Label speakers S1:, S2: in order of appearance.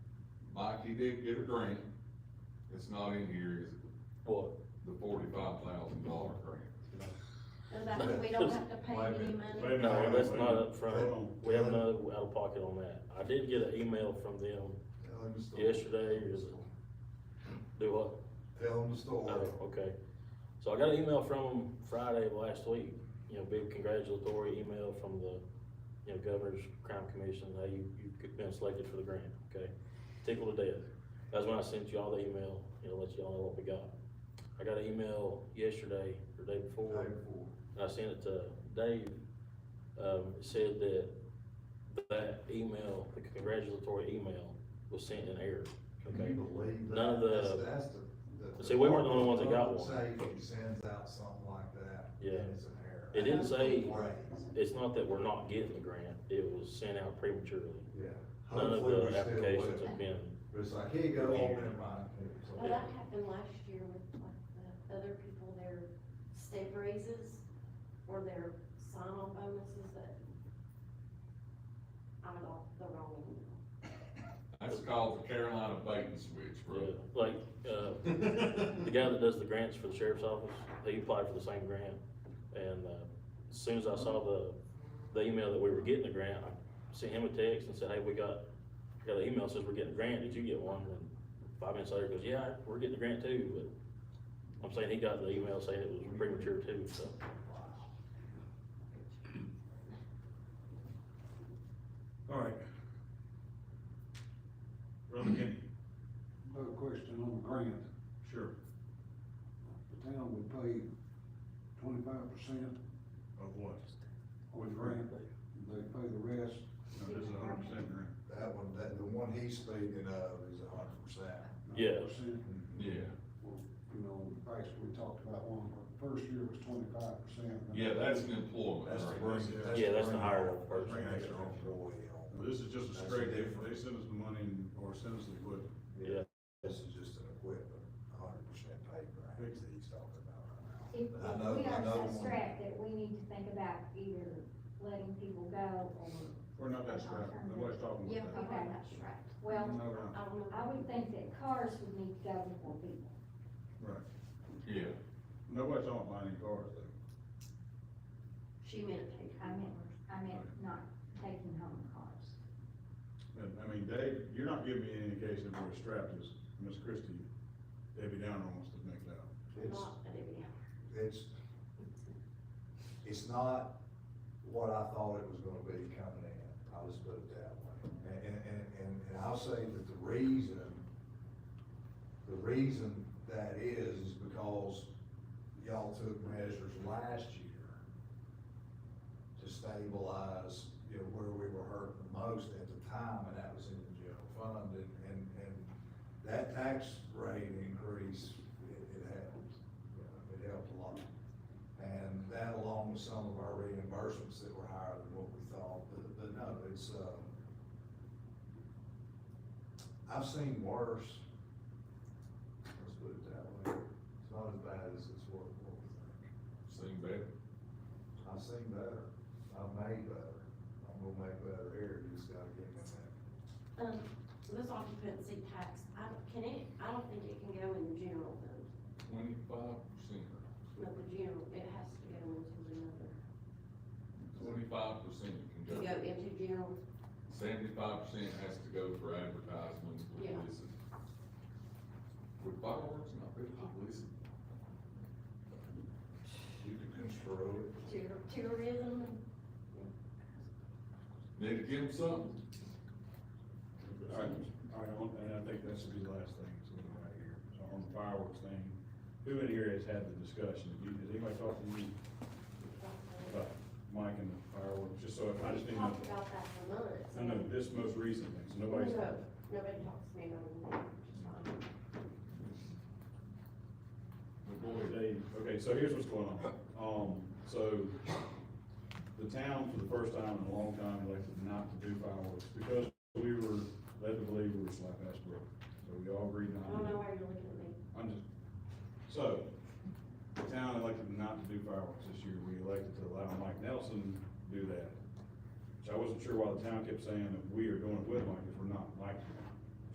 S1: fact, he did get a grant, it's not in here, is
S2: What?
S1: the forty-five thousand dollar grant.
S3: Does that mean we don't have to pay
S4: Wait a
S3: any
S4: minute,
S3: money?
S4: wait a minute,
S2: No,
S4: wait a
S2: that's
S4: minute.
S2: not up
S4: Hold
S2: front.
S4: on.
S2: we have another out of pocket on that. I did get an email from them
S4: Tell him the story.
S2: yesterday, is, do what?
S4: Tell him the story.
S2: Oh, okay. So I got an email from them Friday of last week, you know, big congratulatory email from the, you know, governor's crime commission, how you, you've been selected for the grant, okay? Tickled to death. That's when I sent you all the email, you know, let you all know what we got. I got an email yesterday, or day before,
S4: Pay for it.
S2: and I sent it to Dave. Um, it said that that email, the congratulatory email was sent in error,
S4: Can
S2: okay?
S4: you believe that?
S2: None of the-
S4: That's, that's the. the-
S2: See, we weren't the only ones that got
S4: Public
S2: one.
S4: Safety sends out something like that.
S2: Yeah.
S4: And it's an error.
S2: It didn't say-
S4: Praise.
S2: It's not that we're not getting the grant, it was sent out prematurely.
S4: Yeah.
S2: None of
S4: Hopefully we
S2: the
S4: still
S2: applications
S4: will.
S2: have been,
S4: But it's like, here you go,
S2: Yeah.
S4: oh, never mind. So,
S3: Well, that happened last year with like the other people, their step raises or their sign-on bonuses that I got the wrong email.
S1: That's called the Carolina bait and switch,
S2: yeah,
S1: bro.
S2: like, uh, the guy that does the grants for the sheriff's office, he applied for the same grant. And, uh, as soon as I saw the, the email that we were getting the grant, I sent him a text and said, hey, we got, got an email, says we're getting a grant, did you get one? And five minutes later, he goes, yeah, we're getting a grant too, but I'm saying he got the email saying it was premature too, so.
S5: All right. Brother Kenny,
S6: Another question on the grant,
S5: sure,
S6: the town would pay twenty-five percent
S5: of what?
S6: of the grant, they pay the rest.
S5: No, this is a hundred percent grant.
S4: That one, that, the one he's speaking of is a hundred percent.
S2: Yeah.
S6: 90%.
S1: Yeah,
S6: You know, in the past, we talked about one, but the first year was twenty-five percent.
S1: yeah, that's an employment
S4: That's the
S1: grant.
S4: bring.
S2: Yeah,
S4: the
S2: that's the
S4: bring
S2: higher
S4: on-
S2: level person.
S4: Bring extra employee on.
S5: Now, This is just a
S4: That's
S5: straight, they,
S4: different.
S5: they send us the money and- or send us the equipment.
S2: Yeah.
S4: This is just an equipment, a hundred percent pay grant that he's talking about right now.
S7: If,
S4: But I know-
S7: if we
S4: I
S7: are
S4: know
S7: so
S4: one-
S7: strapped that we need to think about either letting people go or,
S5: We're not that strapped, nobody's talking
S3: Yeah,
S5: about
S3: we
S5: that.
S3: have that strapped.
S7: well,
S5: No, we're not,
S3: I don't know.
S7: I would think that cars would need to go before people.
S5: right,
S1: Yeah,
S5: nobody's talking about any cars though.
S3: She meant pay.
S7: I meant, I meant not taking home cars.
S5: And, I mean, Dave, you're not giving me any indication that we're strapped as Miss Christie, Debbie Downer wants to make it out.
S4: It's,
S3: Not that it-
S4: it's, it's not what I thought it was gonna be coming in, I'll just put it that way. And, and- and, and, and I'll say that the reason, the reason that is, is because y'all took measures last year to stabilize, you know, where we were hurting the most at the time, and that was in the general fund, and, and, and that tax rate increase, it, it helped, you know, it helped a lot. And that along with some of our reimbursements that were higher than what we thought, but, but no, it's, uh, I've seen worse. Let's put it that way. It's not as bad as it's what, what we think.
S1: seen better.
S4: I've seen better. I've made better. I'm gonna make better here. You just gotta get me that.
S3: Um, this occupancy tax, I don't, can it, I don't think it can go in the general fund,
S1: Twenty-five percent,
S3: not the general, it has to go into another.
S1: twenty-five percent
S3: To
S1: can
S3: go
S1: go,
S3: into general,
S1: seventy-five percent has to go for advertisements,
S3: Yeah.
S1: publicity. Would fireworks not be publicity?
S4: You can construe it.
S3: tour- tourism,
S1: Need to give them something,
S5: All right, all right, one- and I think that should be the last thing, so we're right here, so on the fireworks thing, who in here has had the discussion, You- has anybody talked to you about Mike and the fireworks, just so, I just
S3: we
S5: need to know,
S3: talked about that for months.
S5: I know this most recent thing, so
S3: No,
S5: nobody's,
S3: nobody talks to me about it, it's fine.
S1: but boy,
S5: okay, okay, so here's what's going on, um, so, the town for the first time in a long time elected not to do fireworks, because we were led to believe we were slap ass broke, so we all agreed not
S3: I
S5: to. do
S3: don't
S5: it.
S3: know why you're looking at me.
S5: I'm just, so, the town elected not to do fireworks this year, we elected to allow Mike Nelson to do that. So I wasn't sure why the town kept saying that we are doing it with Mike, if we're not, Mike's